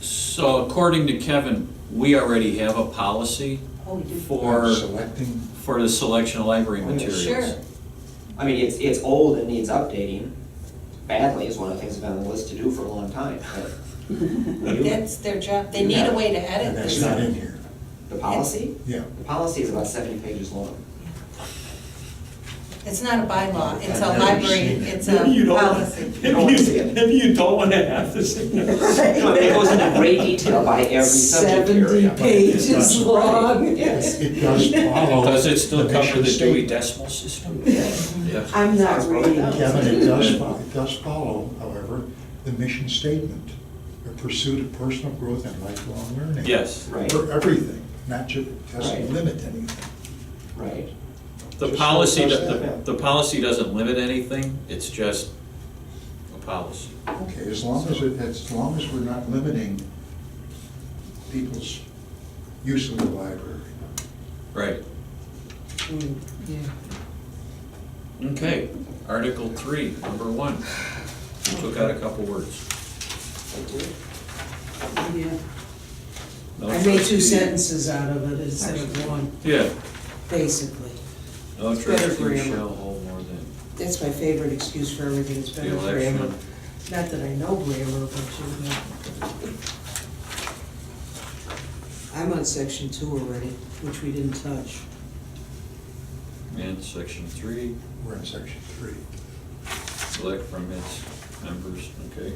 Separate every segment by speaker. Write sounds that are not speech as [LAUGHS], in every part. Speaker 1: So according to Kevin, we already have a policy
Speaker 2: Oh, we do.
Speaker 1: for,
Speaker 3: [LAUGHS]
Speaker 4: Selecting,
Speaker 1: for the selection of library
Speaker 3: Oh, yeah.
Speaker 1: materials.
Speaker 2: Sure.
Speaker 3: I mean, it's, it's old and needs updating badly is one of the things that's been on the list to do for a long time, but. we do-
Speaker 2: That's their job, they need a way to edit
Speaker 4: and
Speaker 2: this.
Speaker 4: that's not in here,
Speaker 3: The policy?
Speaker 4: yeah.
Speaker 3: The policy is about seventy pages long.
Speaker 2: It's not a bylaw, it's a
Speaker 4: I've never
Speaker 2: library,
Speaker 4: seen it.
Speaker 2: it's
Speaker 5: You
Speaker 2: a
Speaker 4: [LAUGHS]
Speaker 5: don't-
Speaker 2: policy.
Speaker 3: You don't wanna see it.
Speaker 5: If you, if you don't wanna have the signature.
Speaker 3: No, I mean, it goes into great detail by every subject
Speaker 6: Seventy
Speaker 3: area.
Speaker 6: pages
Speaker 4: Right.
Speaker 6: long.
Speaker 3: Yes.
Speaker 4: It does follow.
Speaker 1: Does it still cover the Dewey
Speaker 4: statement.
Speaker 1: Decimal
Speaker 6: [LAUGHS]
Speaker 1: System? Yes.
Speaker 6: I'm not reading.
Speaker 4: Kevin, it does, fo- it does follow, however, the mission statement, the pursuit of personal growth and lifelong learning.
Speaker 1: Yes.
Speaker 3: Right,
Speaker 4: For everything, not just, doesn't
Speaker 3: Right.
Speaker 4: limit anything.
Speaker 3: right.
Speaker 1: The
Speaker 4: Just
Speaker 1: policy,
Speaker 4: so it
Speaker 1: the,
Speaker 4: does
Speaker 3: that.
Speaker 1: the the policy doesn't limit anything, it's just a policy.
Speaker 4: Okay, as long as it, as long as we're not limiting people's use of the library.
Speaker 1: Right.
Speaker 6: Mm,
Speaker 1: Okay, Article three, number one. We took out a couple words.
Speaker 6: Yeah.
Speaker 1: No
Speaker 6: I made two
Speaker 1: trustee-
Speaker 6: sentences out of it instead of one,
Speaker 1: Yeah.
Speaker 6: basically.
Speaker 1: No
Speaker 6: It's better
Speaker 1: trustee
Speaker 6: grammar.
Speaker 1: shall hold more than
Speaker 6: That's my favorite excuse for everything, it's better
Speaker 1: the
Speaker 6: grammar.
Speaker 1: election.
Speaker 6: Not that I know grammar, but you know. I'm on section two already, which we didn't touch.
Speaker 1: And section three,
Speaker 4: We're in section three.
Speaker 1: select from its members, okay?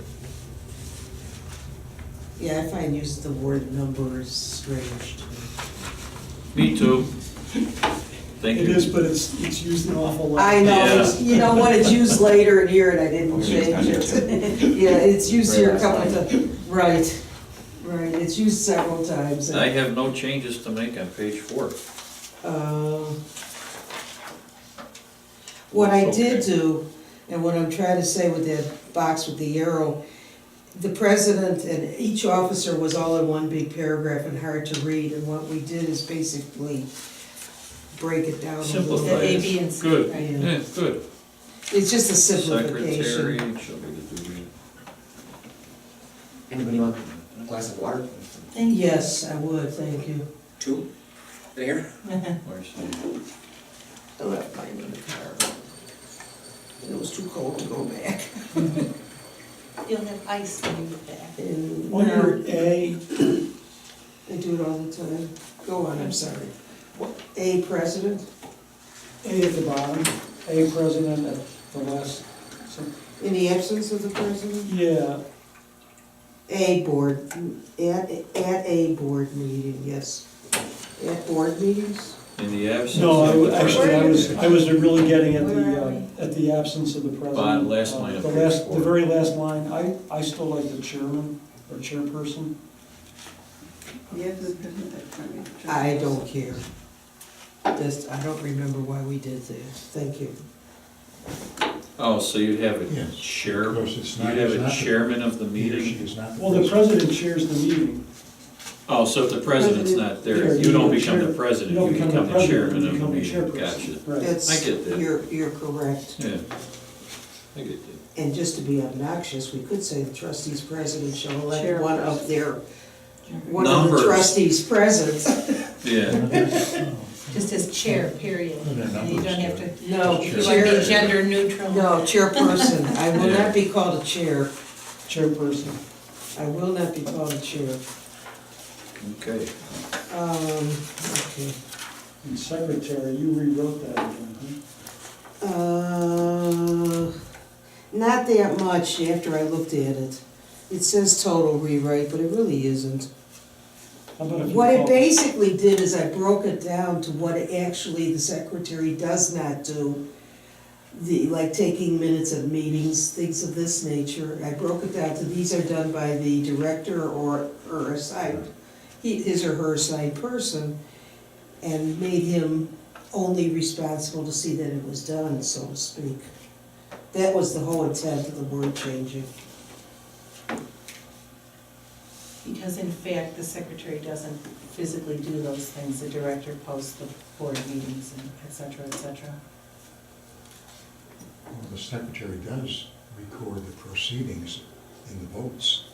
Speaker 6: Yeah, I find use of the word number is strange to me.
Speaker 1: Me too. Thank
Speaker 5: It
Speaker 1: you.
Speaker 5: is, but it's, it's used an awful lot.
Speaker 6: I know, it's-
Speaker 1: Yeah.
Speaker 6: you know what, it's used later in here and I didn't
Speaker 3: Okay, it's
Speaker 6: change
Speaker 3: not
Speaker 6: it. [LAUGHS] Yeah, it's used here a
Speaker 3: Right.
Speaker 6: couple of times, right, right, it's used several times.
Speaker 1: I have no changes to make on page four.
Speaker 6: Uh, What I
Speaker 1: It's
Speaker 6: did
Speaker 1: okay.
Speaker 6: do, and what I'm trying to say with that box with the arrow, the president and each officer was all in one big paragraph and hard to read, and what we did is basically break it down a little
Speaker 1: Simplify
Speaker 2: The A,
Speaker 6: bit.
Speaker 2: B,
Speaker 1: it.
Speaker 2: and C,
Speaker 1: Good,
Speaker 2: right.
Speaker 1: yeah, good.
Speaker 6: It's just a
Speaker 1: Secretary
Speaker 6: simplification.
Speaker 1: shall be the duty.
Speaker 3: Anybody want a glass of water?
Speaker 2: Thank you.
Speaker 6: Yes, I would, thank you.
Speaker 3: Two? There?
Speaker 1: Where's the-
Speaker 6: I left mine in the car. And it was too cold to go back. [LAUGHS]
Speaker 2: You'll have ice in your bag.
Speaker 6: And
Speaker 5: Under
Speaker 6: now,
Speaker 5: A,
Speaker 6: they do it all the time. Go on, I'm sorry.
Speaker 5: What?
Speaker 6: A president?
Speaker 5: A at the bottom, A president at the last, some-
Speaker 6: In the absence of the president?
Speaker 5: yeah,
Speaker 6: A board, at, at a board meeting, yes. At board meetings?
Speaker 1: In the absence
Speaker 5: no, I,
Speaker 1: of
Speaker 5: wa-
Speaker 1: the
Speaker 5: actually, I was, I was really getting at
Speaker 2: Where
Speaker 5: the,
Speaker 2: are
Speaker 5: uh, at the absence of the president.
Speaker 1: Bottom last
Speaker 5: Uh,
Speaker 1: line of
Speaker 5: The
Speaker 1: page
Speaker 5: last,
Speaker 1: four.
Speaker 5: the very last line, I, I still like the chairman or chairperson.
Speaker 6: I don't care. This, I don't remember why we did this, thank you.
Speaker 1: Oh, so you'd have a
Speaker 4: Yes.
Speaker 1: chair,
Speaker 4: Of course,
Speaker 1: you'd
Speaker 4: it's not-
Speaker 1: have
Speaker 4: it's
Speaker 1: a
Speaker 4: not the-
Speaker 1: chairman of the
Speaker 4: He or she
Speaker 1: meeting?
Speaker 4: is not the
Speaker 5: Well, the president chairs the meeting.
Speaker 1: Oh, so if the president's not there,
Speaker 5: Chair,
Speaker 1: you don't
Speaker 5: you're
Speaker 1: become the
Speaker 5: chair-
Speaker 1: president,
Speaker 5: you don't
Speaker 1: you become the
Speaker 5: president,
Speaker 1: chairman
Speaker 5: you
Speaker 1: of the
Speaker 5: become the
Speaker 1: meeting.
Speaker 5: chairperson.
Speaker 1: Gotcha.
Speaker 5: Right.
Speaker 6: That's,
Speaker 1: I get that.
Speaker 6: You're, you're correct.
Speaker 1: Yeah, I get that.
Speaker 6: And just to be obnoxious, we could say the trustees president shall
Speaker 2: Chair.
Speaker 6: elect one of their, one of the
Speaker 1: Numbers.
Speaker 6: trustees present.
Speaker 1: Yeah,
Speaker 2: Just as chair, period.
Speaker 4: No, no,
Speaker 2: And you don't have
Speaker 4: numbers,
Speaker 2: to,
Speaker 6: No,
Speaker 2: you want to
Speaker 6: chair,
Speaker 2: be gender neutral.
Speaker 6: no, chairperson, I will not be called a chair,
Speaker 5: Chairperson.
Speaker 6: I will not be called a chair.
Speaker 1: okay.
Speaker 6: Um, okay.
Speaker 5: And secretary, you rewrote that again, huh?
Speaker 6: Uh, not that much after I looked at it. It says total rewrite, but it really isn't.
Speaker 5: How about if you
Speaker 6: What it
Speaker 5: call-
Speaker 6: basically did is I broke it down to what actually the secretary does not do. The, like taking minutes of meetings, things of this nature. I broke it down to these are done by the director or, or assigned, he, his or her assigned person. And made him only responsible to see that it was done, so to speak. That was the whole intent of the word changing.
Speaker 2: Because in fact, the secretary doesn't physically do those things, the director posts the board meetings and et cetera, et cetera.
Speaker 4: Well, the secretary does record the proceedings in the votes.